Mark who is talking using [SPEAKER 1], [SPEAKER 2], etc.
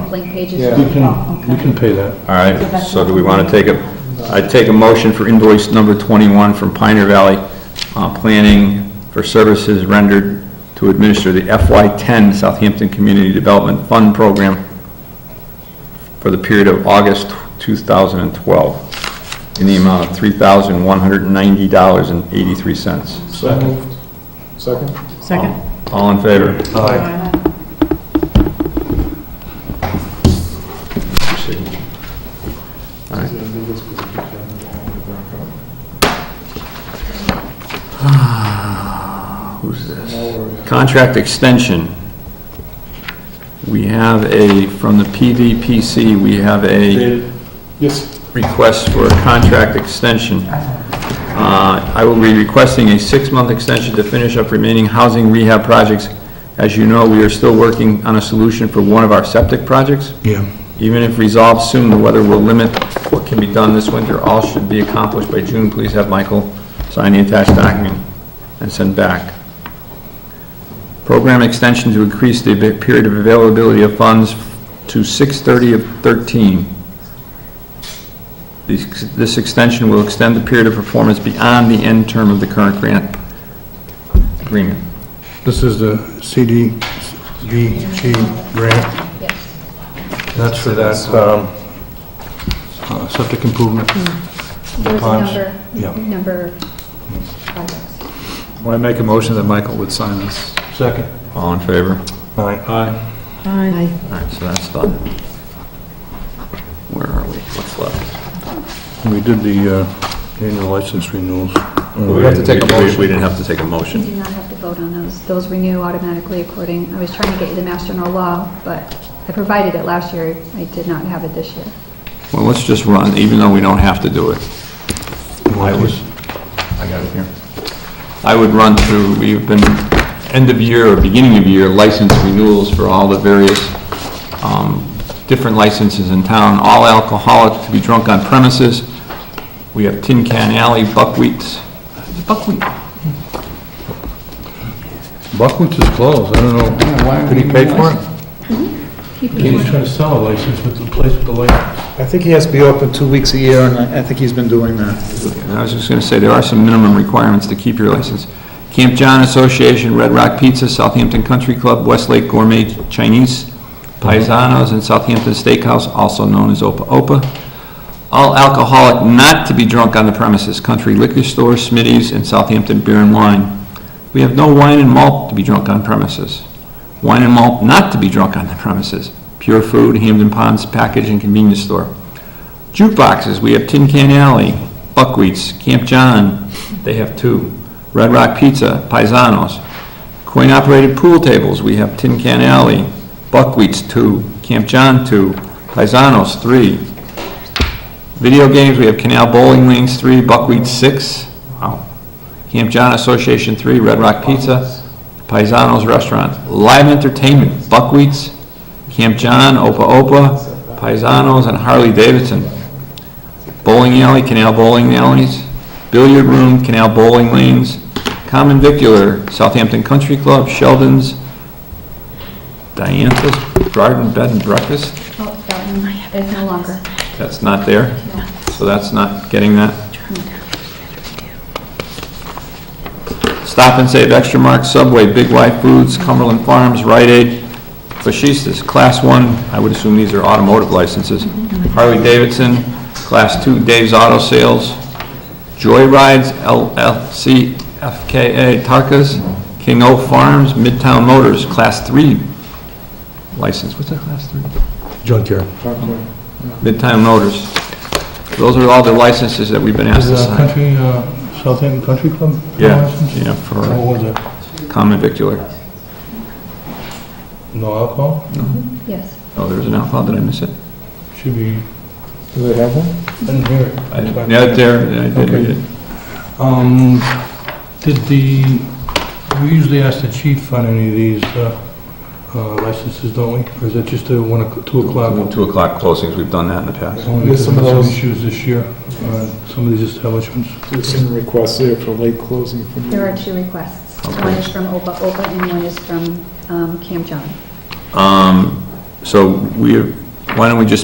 [SPEAKER 1] Blank pages?
[SPEAKER 2] Yeah.
[SPEAKER 3] We
[SPEAKER 1] Oh,
[SPEAKER 3] can, we
[SPEAKER 1] okay.
[SPEAKER 3] can pay that.
[SPEAKER 4] All right, so do we want to take a, I take a motion for invoice number 21 from Pioneer Valley uh, Planning for services rendered to administer the FY10 Southampton Community Development Fund Program for the period of August 2012 in the amount of $3,190.83.
[SPEAKER 2] So moved. Second?
[SPEAKER 5] Second?
[SPEAKER 4] All in favor? Who's this? Contract extension. We have a, from the PVPC, we have a
[SPEAKER 2] Yes,
[SPEAKER 4] request for a contract extension. Uh, I will be requesting a six-month extension to finish up remaining housing rehab projects. As you know, we are still working on a solution for one of our septic projects.
[SPEAKER 3] Yeah.
[SPEAKER 4] Even if resolved soon, the weather will limit what can be done this winter. All should be accomplished by June. Please have Michael sign the attached document and send back. Program extension to increase the ab- period of availability of funds to 6:30 of 13. This this extension will extend the period of performance beyond the end term of the current grant agreement.
[SPEAKER 3] This is the CDBG grant.
[SPEAKER 1] Yes.
[SPEAKER 3] That's for that, um, uh, septic improvement.
[SPEAKER 1] Hmm. There's a
[SPEAKER 3] Times.
[SPEAKER 1] number,
[SPEAKER 3] Yeah.
[SPEAKER 1] number of projects.
[SPEAKER 2] when I make a motion that Michael would sign this.
[SPEAKER 3] Second.
[SPEAKER 4] All in favor?
[SPEAKER 3] Aye.
[SPEAKER 2] Aye.
[SPEAKER 5] Aye.
[SPEAKER 4] All right, so that's done. Where are we? What's left?
[SPEAKER 3] We did the, uh, annual license renewals.
[SPEAKER 4] We
[SPEAKER 2] have to take a motion.
[SPEAKER 4] We didn't have to take a
[SPEAKER 1] You
[SPEAKER 4] motion.
[SPEAKER 1] do not have to vote on those. Those renew automatically according, I was trying to get you the master no law, but I provided it last year. I did not have it this year.
[SPEAKER 4] Well, let's just run, even though we don't have to do it. I would, I got it here. I would run through, we've been, end of year or beginning of year license renewals for all the various, um, different licenses in town, all alcoholic to be drunk on premises. We have Tin Can Alley, Buckwheats, Buckwheat,
[SPEAKER 3] Buckwheats is closed, I don't know, did he pay for it?
[SPEAKER 1] Mm-hmm.
[SPEAKER 3] He's trying to sell a license with the place with the license.
[SPEAKER 2] I think he has to be open two weeks a year, and I I think he's been doing that.
[SPEAKER 4] And I was just going to say, there are some minimum requirements to keep your license. Camp John Association, Red Rock Pizza, Southampton Country Club, Westlake Gourmet Chinese, Paisanos, and Southampton Steakhouse, also known as Opa Opa. All alcoholic not to be drunk on the premises, Country Liquor Store, Smitty's, and Southampton Beer and Wine. We have no wine and malt to be drunk on premises. Wine and malt not to be drunk on the premises, Pure Food, Hamden Ponds Package and Convenience Store. Jukeboxes, we have Tin Can Alley, Buckwheats, Camp John, they have two. Red Rock Pizza, Paisanos. Coin-operated pool tables, we have Tin Can Alley, Buckwheats, two. Camp John, two. Paisanos, three. Video games, we have Canal Bowling Lanes, three. Buckwheat, six. Wow. Camp John Association, three. Red Rock Pizza, Paisanos Restaurant. Live entertainment, Buckwheats, Camp John, Opa Opa, Paisanos, and Harley Davidson. Bowling alley, canal bowling alleys, billiard room, canal bowling lanes, common vicular, Southampton Country Club, Sheldon's, Diantha's Garden Bed and Breakfast,
[SPEAKER 1] Oh, that one is no longer.
[SPEAKER 4] that's not there,
[SPEAKER 1] No.
[SPEAKER 4] so that's not getting that. Stop and Save Extra Mark, Subway, Big Y Foods, Cumberland Farms, Rite Aid, Fashistas, Class 1, I would assume these are automotive licenses, Harley Davidson, Class 2, Dave's Auto Sales, Joyrides, LLC, FKA, Tarkas, King O Farms, Midtown Motors, Class 3 license, what's that, Class 3?
[SPEAKER 3] Junkyard.
[SPEAKER 4] Midtown Motors. Those are all the licenses that we've been
[SPEAKER 3] Is
[SPEAKER 4] asked to
[SPEAKER 3] it
[SPEAKER 4] sign.
[SPEAKER 3] a country, uh, Southampton Country Club?
[SPEAKER 4] Yeah,
[SPEAKER 3] license?
[SPEAKER 4] yeah,
[SPEAKER 3] What
[SPEAKER 4] for
[SPEAKER 3] was it?
[SPEAKER 4] common vicular.
[SPEAKER 3] No alcohol?
[SPEAKER 1] Yes.
[SPEAKER 4] Oh, there's an alcohol, did I miss it?
[SPEAKER 3] Should be,
[SPEAKER 2] Do they have one?
[SPEAKER 3] didn't hear it.
[SPEAKER 4] I- Yeah, it's there, I did read it.
[SPEAKER 3] Um, did the, we usually ask the chief on any of these, uh, uh, licenses, don't we? Or is that just a one, o'clock- two
[SPEAKER 4] Well,
[SPEAKER 3] o'clock?
[SPEAKER 4] Two o'clock closings, we've done that in the past.
[SPEAKER 3] Only
[SPEAKER 2] There's
[SPEAKER 3] because
[SPEAKER 2] some of
[SPEAKER 3] of
[SPEAKER 2] those-
[SPEAKER 3] Issues this year, uh, some of these establishments.
[SPEAKER 2] There's some requests there for late closing from
[SPEAKER 1] There are two requests. One is from Opa Opa and one is from um, Camp John.
[SPEAKER 4] Um, So we, why don't we just